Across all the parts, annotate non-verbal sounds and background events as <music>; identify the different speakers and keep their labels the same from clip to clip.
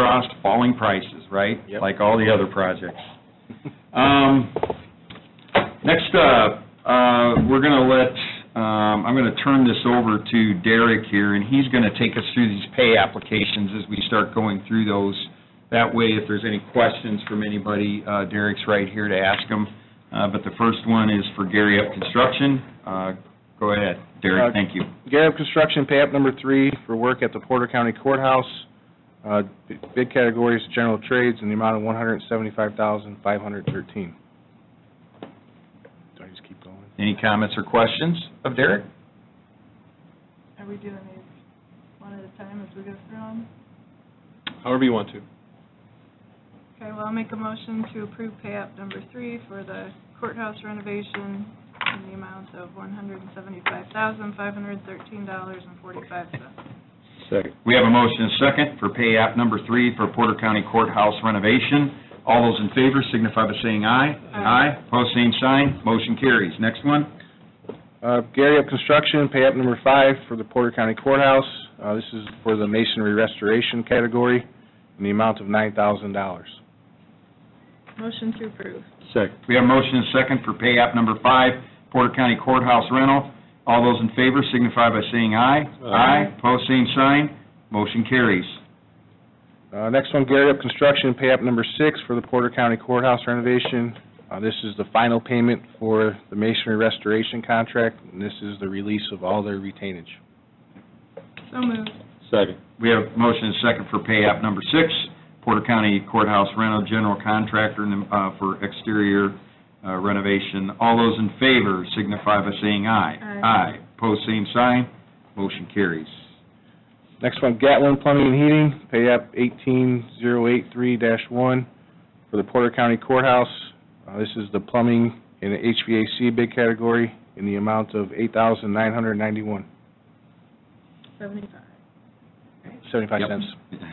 Speaker 1: crossed, falling prices, right?
Speaker 2: Yep.
Speaker 1: Like all the other projects. Um, Next up, uh, we're going to let, um, I'm going to turn this over to Derek here, and he's going to take us through these pay applications as we start going through those. That way, if there's any questions from anybody, uh, Derek's right here to ask them. Uh, But the first one is for Gary Up Construction. Uh, Go ahead, Derek,
Speaker 2: Uh,
Speaker 1: thank you.
Speaker 2: Garab Construction, pay up number three for work at the Porter County Courthouse. Uh, b- Bid categories, general trades, in the amount of one hundred seventy-five thousand, five hundred thirteen. Do I just keep going?
Speaker 1: Any comments or questions of Derek?
Speaker 3: Are we doing these one at a time as we go through them?
Speaker 2: However you want to.
Speaker 3: Okay, well, I'll make a motion to approve pay app number three for the courthouse renovation in the amount of one hundred and seventy-five thousand, five hundred and thirteen dollars and forty-five cents.
Speaker 2: Second.
Speaker 1: We have a motion and second for pay app number three for Porter County Courthouse renovation. All those in favor signify by saying aye.
Speaker 3: Aye.
Speaker 1: Pose same sign, motion carries. Next one,
Speaker 2: Uh, Gary Up Construction, pay up number five for the Porter County Courthouse. Uh, This is for the masonry restoration category, in the amount of nine thousand dollars.
Speaker 3: Motion to approve.
Speaker 2: Second.
Speaker 1: we have a motion and second for pay app number five, Porter County Courthouse rental. All those in favor signify by saying aye.
Speaker 2: Aye.
Speaker 1: Pose same sign, motion carries.
Speaker 2: Uh, Next one, Gary Up Construction, pay up number six for the Porter County Courthouse renovation. Uh, This is the final payment for the masonry restoration contract, and this is the release of all their retainage.
Speaker 3: So moved.
Speaker 2: Second.
Speaker 1: We have a motion and second for pay app number six, Porter County Courthouse rental general contractor uh, for exterior uh, renovation. All those in favor signify by saying aye.
Speaker 3: Aye.
Speaker 1: Pose same sign, motion carries. <laughs>
Speaker 2: Next one, Gatlin Plumbing and Heating, pay up 18083-1 for the Porter County Courthouse. Uh, This is the plumbing and HVAC bid category in the amount of $8,991,
Speaker 3: Seventy-five.
Speaker 2: 75
Speaker 1: Yep.
Speaker 2: cents.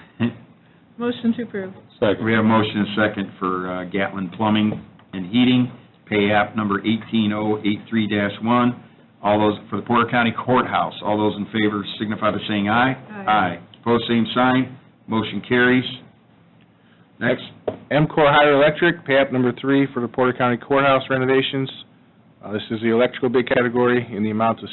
Speaker 3: Motion to approve.
Speaker 1: We have a motion and second for uh, Gatlin Plumbing and Heating, pay app number 18083-1. All those, for the Porter County Courthouse, all those in favor signify by saying aye.
Speaker 3: Aye.
Speaker 1: Pose same sign, motion carries. Next.
Speaker 2: MCOR Higher Electric, pay up number three for the Porter County Courthouse renovations. Uh, This is the electrical bid category in the amount of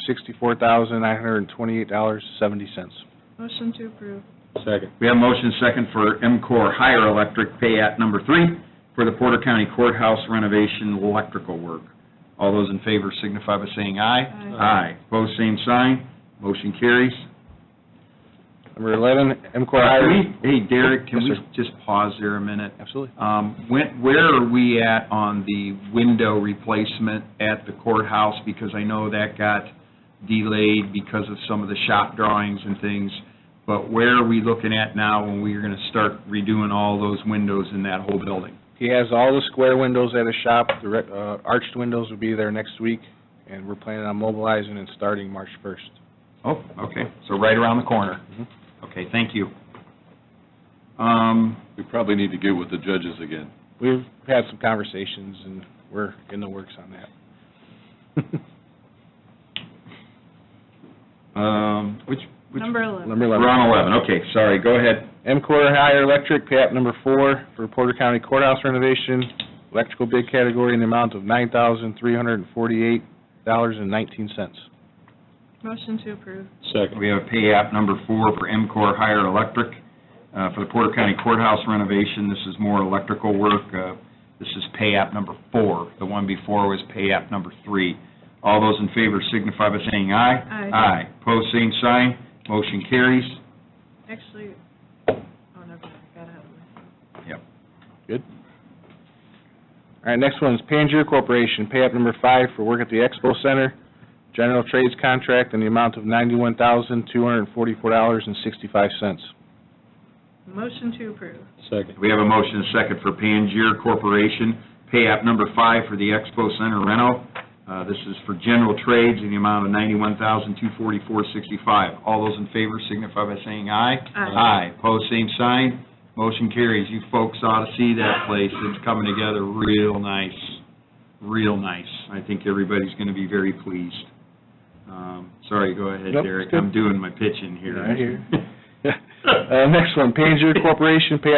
Speaker 2: $64,928.70.
Speaker 3: Motion to approve.
Speaker 2: Second.
Speaker 1: We have a motion second for MCOR Higher Electric pay at number three for the Porter County Courthouse renovation electrical work. All those in favor signify by saying aye. Aye. Pose same sign, motion carries.
Speaker 2: Number 11,
Speaker 1: Can
Speaker 2: MCOR Higher...
Speaker 1: we- Hey, Derek, can
Speaker 2: Yes,
Speaker 1: we
Speaker 2: sir.
Speaker 1: just pause there a minute?
Speaker 2: Absolutely.
Speaker 1: Um, when- Where are we at on the window replacement at the courthouse? Because I know that got delayed because of some of the shop drawings and things, but where are we looking at now when we are going to start redoing all those windows in that whole building?
Speaker 2: He has all the square windows at his shop, the re- uh, arched windows will be there next week, and we're planning on mobilizing and starting March 1st.
Speaker 1: Oh, okay, Mm-hmm. so right around the corner.
Speaker 2: Mhm.
Speaker 1: Okay, thank you. Um,
Speaker 4: We probably need to get with the judges again.
Speaker 2: We've had some conversations, and we're in the works on that.
Speaker 1: um, Which, which,
Speaker 3: Number eleven.
Speaker 2: Number 11.
Speaker 1: we're on 11, okay, sorry, go ahead.
Speaker 2: MCOR Higher Electric, pay app number four for Porter County Courthouse renovation, electrical bid category in the amount of nine thousand three hundred and forty-eight dollars and nineteen cents.
Speaker 3: Motion to approve.
Speaker 1: We have pay app number four for MCOR Higher Electric. Uh, For the Porter County Courthouse renovation, this is more electrical work. Uh, This is pay app number four. The one before was pay app number three. All those in favor signify by saying aye.
Speaker 3: Aye.
Speaker 1: Aye. Pose same sign, motion carries.
Speaker 3: Actually, oh, never mind, I got out of my.
Speaker 2: All right, next one is Pangier Corporation, pay up number five for work at the Expo Center, general trades contract in the amount of ninety-one thousand two hundred and forty-four dollars and sixty-five cents.
Speaker 3: Motion to approve.
Speaker 2: <laughs> Second.
Speaker 1: We have a motion and second for Pangier Corporation, pay app number five for the Expo Center rental. Uh, This is for general trades in the amount of $91,244.65. All those in favor signify by saying aye. Aye. Pose same sign. Motion carries. You folks ought to see that place. It's coming together real nice, real nice. I think everybody's going to be very pleased. Um, Sorry, go ahead,
Speaker 2: Nope,
Speaker 1: Derek.
Speaker 2: it's good.
Speaker 1: I'm doing my pitching here. <laughs>
Speaker 2: Right here. Uh, Next one, Panzer Corporation, pay